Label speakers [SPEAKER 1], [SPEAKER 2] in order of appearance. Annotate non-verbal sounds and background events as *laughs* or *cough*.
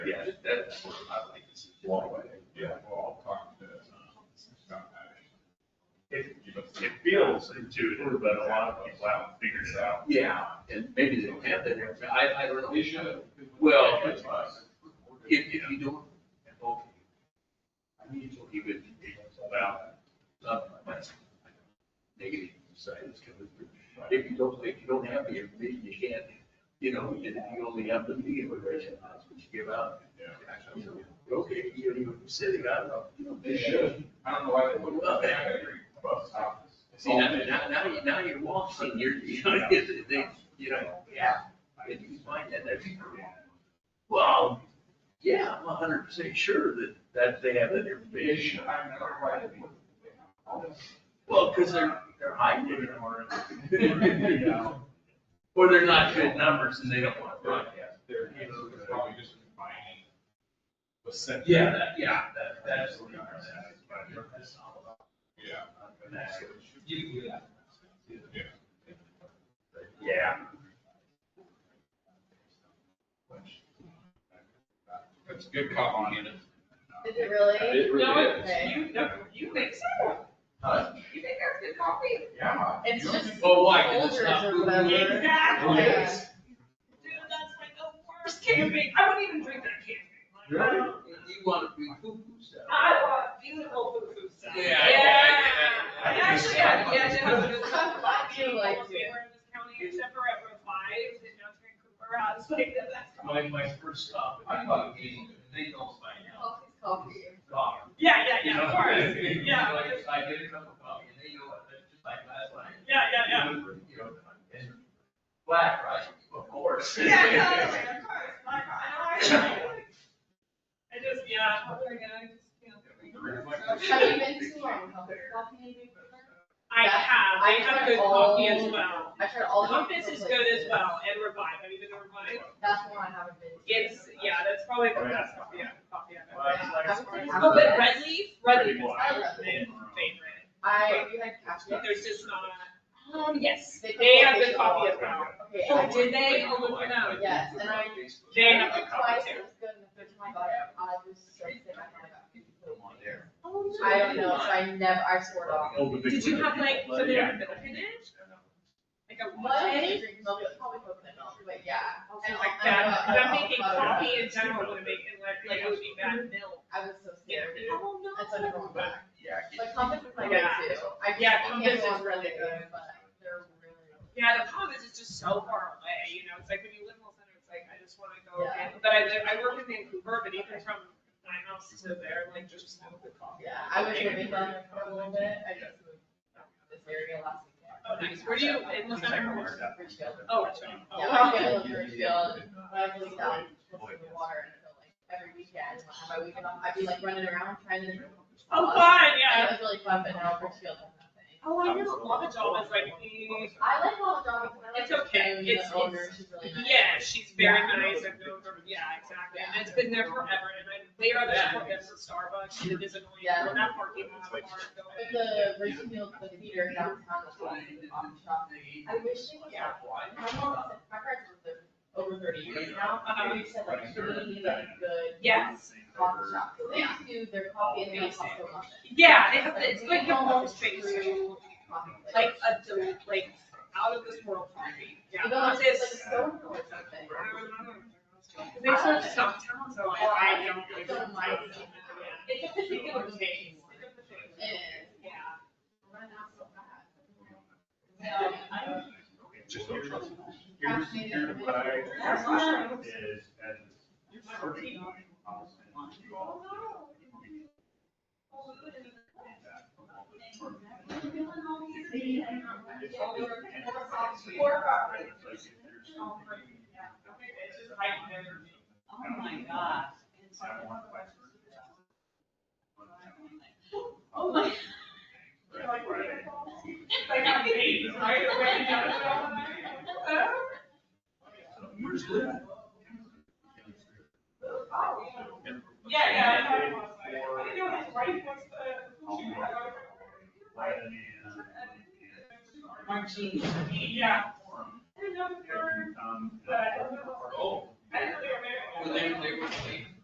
[SPEAKER 1] uh, counterintuitive, but a lot of people haven't figured it out.
[SPEAKER 2] Yeah, and maybe they don't have that information, I, I don't know.
[SPEAKER 3] They should.
[SPEAKER 2] Well,
[SPEAKER 3] That's us.
[SPEAKER 2] If, if you don't, okay. You would,
[SPEAKER 1] Well,
[SPEAKER 2] uh, that's negative side is coming through. If you don't, if you don't have the information, you can't, you know, and if you only have the media information, that's what you give out. You know, Okay, you don't even say they got it, you know,
[SPEAKER 3] They should. I don't know why they put it up there.
[SPEAKER 2] See, now, now, now you, now you're walking, you're, *laughs* you know, they, you know, yeah, if you find that, that's. Well, yeah, I'm a hundred percent sure that, that they have that
[SPEAKER 3] They
[SPEAKER 2] information.
[SPEAKER 3] should. I don't know why they put it up there.
[SPEAKER 2] Well, because they're, they're hiding it or,
[SPEAKER 3] Yeah.
[SPEAKER 2] *laughs* or they're not good numbers and they don't want to broadcast.
[SPEAKER 3] They're, you know, they're probably just combining. the sentiment.
[SPEAKER 2] Yeah, that, yeah, that, that's.
[SPEAKER 3] Yeah. Yeah.
[SPEAKER 2] Yeah.
[SPEAKER 3] That's a good cop on it.
[SPEAKER 4] Is it really?
[SPEAKER 3] It
[SPEAKER 5] No,
[SPEAKER 3] really
[SPEAKER 5] it's-
[SPEAKER 3] is.
[SPEAKER 5] you, no, you make so.
[SPEAKER 3] Huh?
[SPEAKER 5] You make that's good coffee.
[SPEAKER 3] Yeah.
[SPEAKER 4] It's
[SPEAKER 3] You-
[SPEAKER 4] just-
[SPEAKER 2] Well, Oh, why? 'Cause it's
[SPEAKER 4] Folders
[SPEAKER 2] not
[SPEAKER 4] or
[SPEAKER 2] food.
[SPEAKER 4] whatever.
[SPEAKER 5] Exactly.
[SPEAKER 3] Yeah.
[SPEAKER 5] Dude, that's like the worst camping. I wouldn't even drink that camping. Like, I don't-
[SPEAKER 2] You want to be poo-poo stuff.
[SPEAKER 5] I want beautiful food stuff.
[SPEAKER 2] Yeah.
[SPEAKER 5] Yeah.
[SPEAKER 3] I- I- I- I-
[SPEAKER 5] Actually, I, yeah, they have a good stuff. A lot of
[SPEAKER 4] I do
[SPEAKER 5] people
[SPEAKER 4] like
[SPEAKER 5] almost anywhere in this county except for at Route Five and Johnson and Cooper. I was like, that- that's.
[SPEAKER 2] My, my first stop, I thought it was, they know by now,
[SPEAKER 4] Coffee's coffee.
[SPEAKER 2] dog.
[SPEAKER 5] Yeah, yeah,
[SPEAKER 2] You
[SPEAKER 5] yeah,
[SPEAKER 2] know,
[SPEAKER 5] of course.
[SPEAKER 2] it's-
[SPEAKER 5] Yeah.
[SPEAKER 2] like, if I get a cup of coffee and they know it, that's just like last night.
[SPEAKER 5] Yeah, yeah, *laughs* yeah.
[SPEAKER 2] You know, and Black rice, of course.
[SPEAKER 5] *laughs* Yeah,
[SPEAKER 2] *laughs*
[SPEAKER 5] totally, of course, my, I know, I, I just, yeah, oh my God, I just feel
[SPEAKER 4] Have you been to um, Compass Coffee in Vancouver?
[SPEAKER 5] I have, I have good coffee as well.
[SPEAKER 4] I tried all. the
[SPEAKER 5] Compass is
[SPEAKER 4] different
[SPEAKER 5] good as
[SPEAKER 4] places.
[SPEAKER 5] well, and Revive, have you been to Revive?
[SPEAKER 4] That's one I haven't been to.
[SPEAKER 5] It's, yeah, that's probably the best coffee, yeah, coffee I've ever.
[SPEAKER 4] Well,
[SPEAKER 5] Oh, but Red Leaf, Red Leaf is
[SPEAKER 4] I
[SPEAKER 5] my
[SPEAKER 4] love
[SPEAKER 5] favorite,
[SPEAKER 4] I, you had cashew.
[SPEAKER 5] there's just not,
[SPEAKER 4] Um,
[SPEAKER 5] yes, they have good coffee as well.
[SPEAKER 4] Okay, I did,
[SPEAKER 5] Did they? Oh, look it up.
[SPEAKER 4] Yes, and I-
[SPEAKER 5] They
[SPEAKER 4] I
[SPEAKER 5] have
[SPEAKER 4] did
[SPEAKER 5] good
[SPEAKER 4] it twice,
[SPEAKER 5] coffee
[SPEAKER 4] it
[SPEAKER 5] too.
[SPEAKER 4] was good, and the third time I got it, I was so sick, I kind
[SPEAKER 2] Put 'em on there.
[SPEAKER 5] Oh,
[SPEAKER 4] of, I don't know, so I never, I swore it off.
[SPEAKER 5] Did you have like, so they
[SPEAKER 1] Yeah.
[SPEAKER 5] have milk in it, like a
[SPEAKER 4] Well, I
[SPEAKER 5] latte?
[SPEAKER 4] didn't drink milk, it's probably coconut milk, but yeah.
[SPEAKER 5] And like that, because I'm thinking coffee in general would make it like, like it would be bad milk.
[SPEAKER 4] I was so scared.
[SPEAKER 5] Oh,
[SPEAKER 4] That's like going back.
[SPEAKER 2] Yeah. I
[SPEAKER 4] Like
[SPEAKER 2] get-
[SPEAKER 4] Compass is my go-to.
[SPEAKER 5] Yeah.
[SPEAKER 4] I
[SPEAKER 5] Yeah, Compass
[SPEAKER 4] can't go
[SPEAKER 5] is
[SPEAKER 4] on
[SPEAKER 5] really
[SPEAKER 4] Compass,
[SPEAKER 5] good.
[SPEAKER 4] but They're really.
[SPEAKER 5] Yeah, the problem is it's just so far away, you know, it's like when you live in the center, it's like, I just wanna go,
[SPEAKER 4] Yeah.
[SPEAKER 5] and- but I live, I work in Vancouver, but even from my house to there, like just no good coffee.
[SPEAKER 4] Yeah, I was living down there for a little bit. I just moved to this area last weekend.
[SPEAKER 5] Oh, nice, where do you, in the center or?
[SPEAKER 4] Richfield.
[SPEAKER 5] Oh, it's right.
[SPEAKER 4] Yeah,
[SPEAKER 5] Oh,
[SPEAKER 4] I'm gonna live in Richfield. When I was down, in the water until like every weekend, when I had my weekend off, I'd be like running around trying to.
[SPEAKER 5] Oh, fun,
[SPEAKER 4] And It
[SPEAKER 5] yeah.
[SPEAKER 4] was really fun, but now Richfield has nothing.
[SPEAKER 5] Oh, I know, Lava Jaw is like, mm,
[SPEAKER 4] I like Walla Dog. I like
[SPEAKER 5] It's okay.
[SPEAKER 4] Jamie,
[SPEAKER 5] It's-
[SPEAKER 4] The owner,
[SPEAKER 5] it's-
[SPEAKER 4] she's really nice.
[SPEAKER 5] Yeah, she's very
[SPEAKER 4] Yeah.
[SPEAKER 5] nice. I've known her. Yeah, exactly. And it's been there forever. And I, they are the support them for Starbucks. It is annoying.
[SPEAKER 4] Yeah.
[SPEAKER 5] We're not parking lot hard
[SPEAKER 4] But
[SPEAKER 5] going.
[SPEAKER 4] the Richfield, the theater downtown was awesome. I wish she was.
[SPEAKER 5] Yeah.
[SPEAKER 4] My mom said, my parents lived there over thirty years now, and they said like, she really needed a good
[SPEAKER 5] um, Yes.
[SPEAKER 4] coffee shop, because they just do their coffee and they also love it.
[SPEAKER 5] Yeah, they have, it's like your home space. Like
[SPEAKER 4] Like,
[SPEAKER 5] a, del- like out of this world coffee. Yeah.
[SPEAKER 4] you go
[SPEAKER 5] Not
[SPEAKER 4] into like
[SPEAKER 5] this.
[SPEAKER 4] Stone or something.
[SPEAKER 5] They serve stuff town, so I, I don't really.
[SPEAKER 4] It's on my seat.
[SPEAKER 5] It's a particular taste.
[SPEAKER 4] It is.
[SPEAKER 5] Yeah.
[SPEAKER 4] We're not so bad.
[SPEAKER 5] No, I don't-
[SPEAKER 3] Just don't trust them.
[SPEAKER 1] Here's, here's what I.
[SPEAKER 5] That's awesome.
[SPEAKER 1] Is at the starting line, I'll send you all. It's all- It's like if there's something-
[SPEAKER 6] Oh my gosh.
[SPEAKER 1] I want my-
[SPEAKER 6] Oh my.
[SPEAKER 1] Right, Friday.
[SPEAKER 5] Like on days, right? Right, yeah.
[SPEAKER 2] Where's that?
[SPEAKER 5] Yeah, yeah, I know. I didn't know it was right next to.
[SPEAKER 1] Friday and-
[SPEAKER 6] Margie.
[SPEAKER 5] Yeah.
[SPEAKER 2] Um,
[SPEAKER 5] Uh, Oh.